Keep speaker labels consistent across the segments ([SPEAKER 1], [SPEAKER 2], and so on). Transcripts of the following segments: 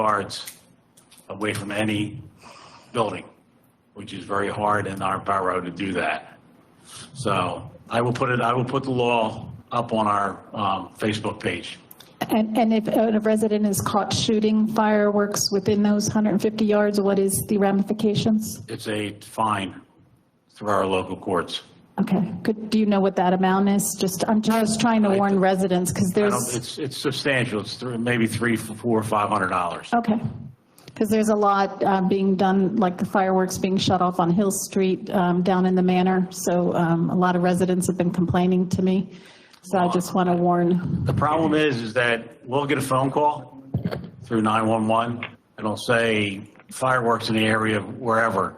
[SPEAKER 1] yards away from any building, which is very hard in our borough to do that. So I will put it, I will put the law up on our um, Facebook page.
[SPEAKER 2] And, and if a resident is caught shooting fireworks within those 150 yards, what is the ramifications?
[SPEAKER 1] It's a fine through our local courts.
[SPEAKER 2] Okay, could, do you know what that amount is? Just, I'm just trying to warn residents, because
[SPEAKER 1] I don't-
[SPEAKER 2] there's,
[SPEAKER 1] It's, it's substantial. It's thr- maybe three, four, five hundred dollars.
[SPEAKER 2] okay. Because there's a lot uh, being done, like the fireworks being shut off on Hill Street um, down in the Manor, so um, a lot of residents have been complaining to me, so I just want to warn.
[SPEAKER 1] The problem is, is that we'll get a phone call through 911. It'll say fireworks in the area of wherever.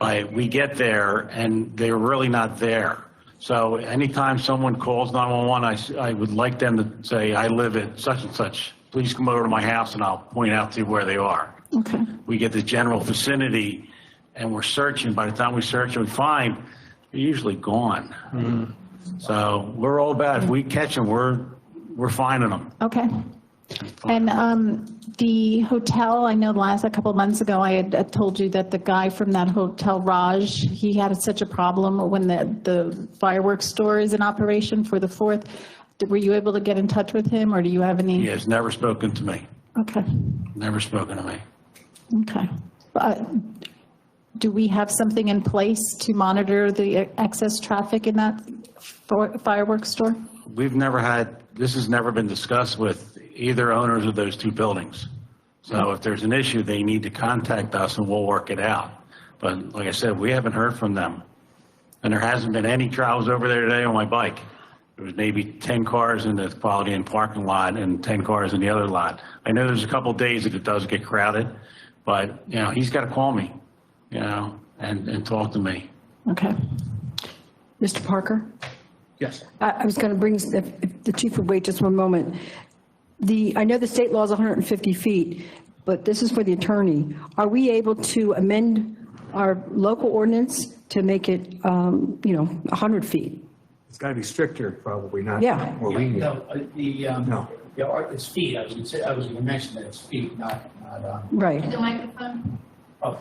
[SPEAKER 1] But we get there and they're really not there. So anytime someone calls 911, I s- I, would like them to say, I live at such and such. Please come over to my house and I'll point out to you where they are.
[SPEAKER 2] Okay,
[SPEAKER 1] We get the general vicinity and we're searching. By the time we search and we find, they're usually gone. So we're all about, if we catch them, we're, we're finding them.
[SPEAKER 2] okay. And um, the hotel, I know last, a couple months ago, I had uh, told you that the guy from that hotel, Raj, he had such a problem when the the fireworks store is in operation for the 4th. Did- Were you able to get in touch with him, or do you have any?
[SPEAKER 1] He has never spoken to me,
[SPEAKER 2] Okay,
[SPEAKER 1] never spoken to me.
[SPEAKER 2] okay. Uh, Do we have something in place to monitor the excess traffic in that for- fireworks store?
[SPEAKER 1] We've never had, this has never been discussed with either owners of those two buildings.
[SPEAKER 3] Hmm.
[SPEAKER 1] So if there's an issue, they need to contact us and we'll work it out. But like I said, we haven't heard from them. And there hasn't been any trials over there today on my bike. There was maybe 10 cars in the Quality Inn parking lot and 10 cars in the other lot. I know there's a couple days that it does get crowded, but, you know, he's got to call me, you know, and, and talk to me.
[SPEAKER 2] Okay,
[SPEAKER 4] Mr. Parker?
[SPEAKER 1] Yes.
[SPEAKER 4] I I was going to bring, s- if if the chief would wait just one moment. The, I know the state law is 150 feet, but this is for the attorney. Are we able to amend our local ordinance to make it, um, you know, 100 feet?
[SPEAKER 5] It's got to be stricter, probably, not
[SPEAKER 4] Yeah.
[SPEAKER 5] more lenient.
[SPEAKER 6] No, uh, the, um,
[SPEAKER 5] No.
[SPEAKER 6] the art- it's feet, I was gonna say, I was gonna mention that it's feet, not, not, um,
[SPEAKER 4] Right.
[SPEAKER 6] oh,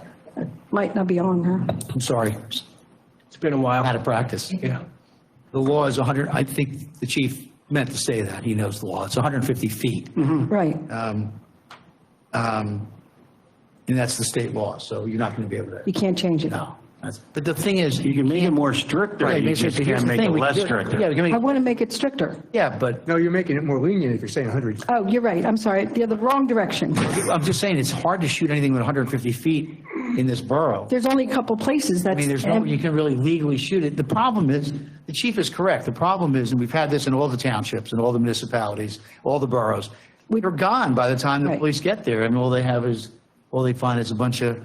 [SPEAKER 4] Might not be on, huh?
[SPEAKER 3] I'm sorry. It's been a while. Out of practice. Yeah. The law is 100, I think the chief meant to say that. He knows the law. It's 150 feet.
[SPEAKER 4] Right.
[SPEAKER 3] Um, And that's the state law, so you're not going to be able to,
[SPEAKER 4] You can't change it.
[SPEAKER 3] no. That's- But the thing is.
[SPEAKER 1] You can make it more stricter, you
[SPEAKER 3] Here's
[SPEAKER 1] just
[SPEAKER 3] the
[SPEAKER 1] can't make
[SPEAKER 3] thing,
[SPEAKER 1] it
[SPEAKER 3] we can
[SPEAKER 1] less
[SPEAKER 3] do Yeah,
[SPEAKER 1] stricter.
[SPEAKER 3] we can
[SPEAKER 4] I
[SPEAKER 3] make-
[SPEAKER 4] want to make it stricter.
[SPEAKER 3] yeah, but
[SPEAKER 5] No, you're making it more lenient if you're saying 100.
[SPEAKER 4] Oh, you're right. I'm sorry. The other, wrong direction.
[SPEAKER 3] I'm just saying, it's hard to shoot anything with 150 feet in this borough.
[SPEAKER 4] There's only a couple places that's.
[SPEAKER 3] I mean, there's no, you can really legally shoot it. The problem is, the chief is correct. The problem is, and we've had this in all the townships and all the municipalities, all the boroughs. They're gone by the time the
[SPEAKER 4] Right.
[SPEAKER 3] police get there and all they have is, all they find is a bunch of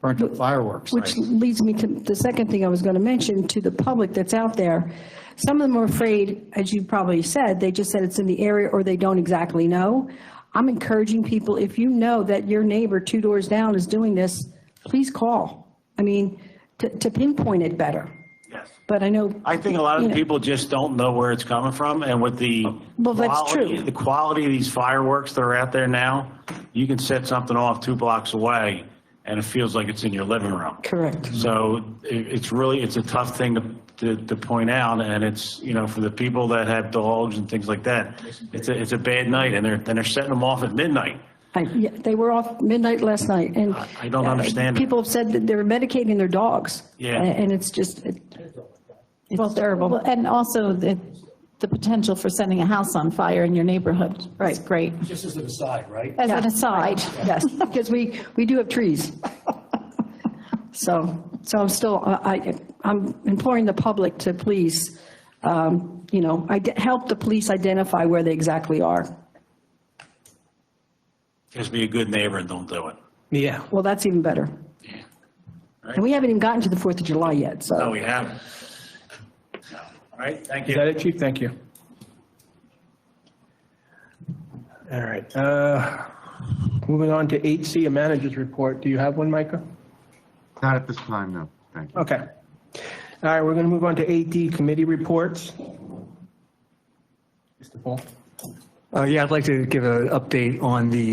[SPEAKER 3] burnt up fireworks.
[SPEAKER 4] Which leads me to the second thing I was going to mention, to the public that's out there. Some of them are afraid, as you probably said, they just said it's in the area or they don't exactly know. I'm encouraging people, if you know that your neighbor two doors down is doing this, please call. I mean, to to pinpoint it better.
[SPEAKER 1] Yes.
[SPEAKER 4] But I know,
[SPEAKER 1] I think a lot of
[SPEAKER 4] Yeah.
[SPEAKER 1] people just don't know where it's coming from, and with the
[SPEAKER 4] Well, that's
[SPEAKER 1] quality-
[SPEAKER 4] true.
[SPEAKER 1] The quality of these fireworks that are out there now, you can set something off two blocks away, and it feels like it's in your living room.
[SPEAKER 4] correct.
[SPEAKER 1] So it, it's really it's a tough thing to, to to point out, and it's you know for the people that have dogs and things like that, it's a it's a bad night, and they're and they're setting them off at midnight.
[SPEAKER 4] I- yeah, They were off midnight last night and. uh,
[SPEAKER 1] I don't understand it.
[SPEAKER 4] People have said that they're medicating their dogs.
[SPEAKER 1] Yeah.
[SPEAKER 4] And it's just, it- it's
[SPEAKER 2] Well,
[SPEAKER 4] terrible.
[SPEAKER 2] And also the, the potential for setting a house on fire in your neighborhood. That's
[SPEAKER 4] Right.
[SPEAKER 2] great.
[SPEAKER 6] just as an aside, right?
[SPEAKER 2] As an
[SPEAKER 4] Yeah.
[SPEAKER 2] aside.
[SPEAKER 4] Yes, because we, we do have trees. So, so I'm still, I, I'm imploring the public to please, um, you know, ide- help the police identify where they exactly are.
[SPEAKER 1] Just be a good neighbor and don't do it.
[SPEAKER 3] Yeah.
[SPEAKER 4] Well, that's even better. And we haven't even gotten to the 4th of July yet, so.
[SPEAKER 1] No, we haven't. All right, thank you.
[SPEAKER 7] Is that it, Chief? Thank you. All right. uh, Moving on to 8C, a manager's report. Do you have one, Micah?
[SPEAKER 8] Not at this time, no. Thank you.
[SPEAKER 7] Okay. All right, we're going to move on to 8D, committee reports. Mr. Paul?
[SPEAKER 5] Uh, Yeah, I'd like to give an update on the